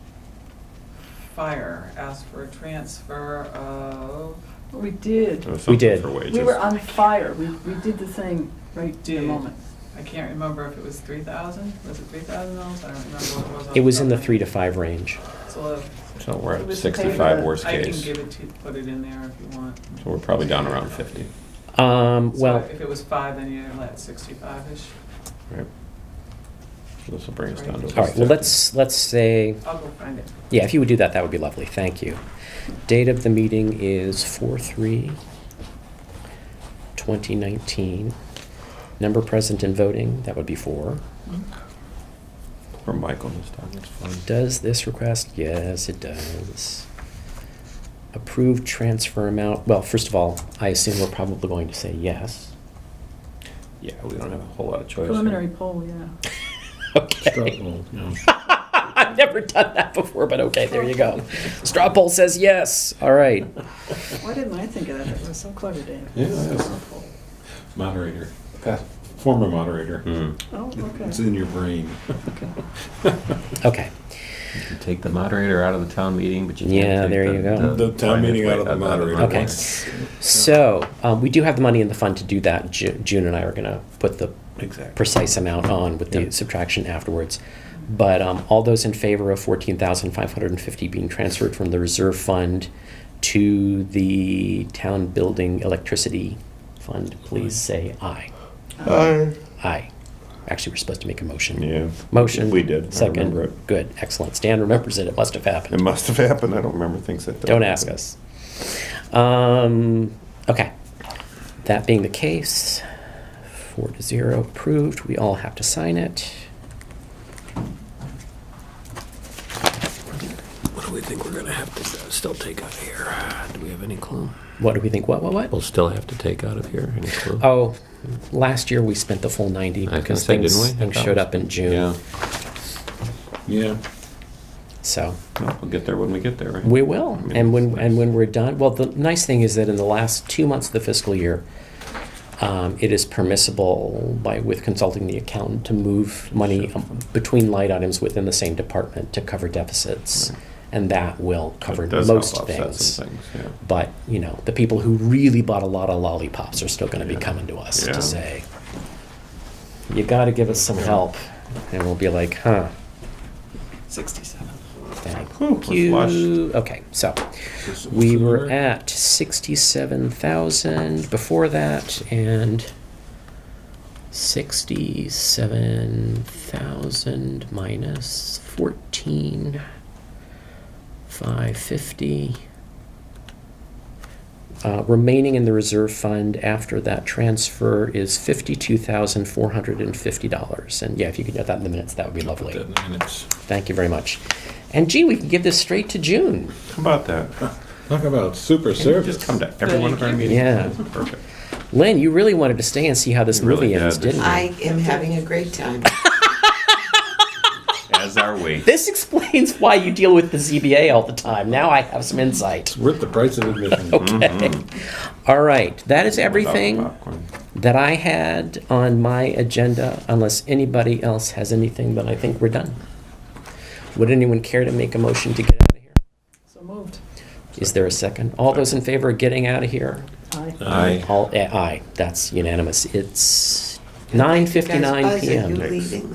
Fire asked for a transfer of, We did. Or something did. For wages. We were on fire. We, we did the thing right at the Did. moment. I can't remember if it was three thousand, was it three thousand dollars? I don't remember what it was. off It was in the top. three to five range. So uh, So we're It at was the sixty-five paper. worst I can case. give it to, you, put it in there if you want. So we're probably down around fifty, Um, So well, If it was five, then you're at sixty-five-ish. right? This will bring us down to. all right, well, let's, let's say, I'll go find it. yeah, if you would do that, that would be lovely, thank you. Date of the meeting is four three twenty nineteen. Number present and voting, that would be four. Or Michael this time, that's fine. Does this request? Yes, it does. Approved transfer amount, well, first of all, I assume we're probably going to say yes. Yeah, we don't have a whole lot of choice. here. Preliminary poll, yeah. Okay. I've never done that before, but okay, there you go. Straw poll says yes. All right. Why didn't I think of that? That was so clever, Dave. Yeah, yes. Moderator, past, former moderator. Hmm. Oh, It's okay. in your brain. Okay. You can take the moderator out of the town meeting, but you can't Yeah, take there the- you go. The town meeting out of the moderator. Okay. So um, we do have the money in the fund to do that. Ju- June and I are going to put the Exactly. precise amount on with the Yep. subtraction afterwards. But um, all those in favor of fourteen thousand five hundred and fifty being transferred from the reserve fund to the town building electricity fund, please say aye. Uh, Aye. Actually, we're supposed to make a motion. Yeah. Motion. We did. I Second. remember it. Good, excellent. Stan remembers it. It must have happened. It must have happened, I don't remember things that. Don't ask us. Um, okay. That being the case, four to zero approved. We all have to sign it. What do we think we're gonna have to uh, still take out of here? Do we have any clue? What do we think? What, what, what? We'll still have to take out of here, any clue? Oh, last year we spent the full 90 I was because gonna say, things, didn't we? I things thought showed we- up in June. Yeah, Yeah. So No, we'll get there when we get there, right? we will. I mean, And when, it's- and when we're done, well, the nice thing is that in the last two months of the fiscal year, um, it is permissible by, with consulting the accountant, to move money um, between light items within the same department to cover deficits. And that will cover It does help most offset things. some things, yeah. But, you know, the people who really bought a lot of lollipops are still gonna be Yeah. coming to us Yeah. to say, you gotta give us some help. And we'll be like, huh, Sixty-seven. thank we're you. flushed. Okay, so, This is we were preliminary. at sixty-seven thousand before that and sixty-seven thousand minus fourteen, five fifty. Uh, remaining in the reserve fund after that transfer is fifty-two thousand four hundred and fifty dollars. And yeah, if you could note that in the minutes, that would be lovely. Put that in minutes. Thank you very much. And gee, we can give this straight to June. How about that? Talk about super service. Just come to every one of our meetings. Yeah. Perfect. Lynn, you really wanted to stay and see how this You really movie ends, did. didn't you? I am having a great time. As are we. this explains why you deal with the ZBA all the time. Now I have some insight. Worth the price of admission. All right, that is everything Without popcorn. that I had on my agenda, unless anybody else has anything, then I think we're done. Would anyone care to make a motion to get out of here? So moved. Is there a second? All those in favor of getting out of here? Aye. Aye. All, eh, aye, that's unanimous. It's 9:59 Guys, Buzz, are PM. you leaving?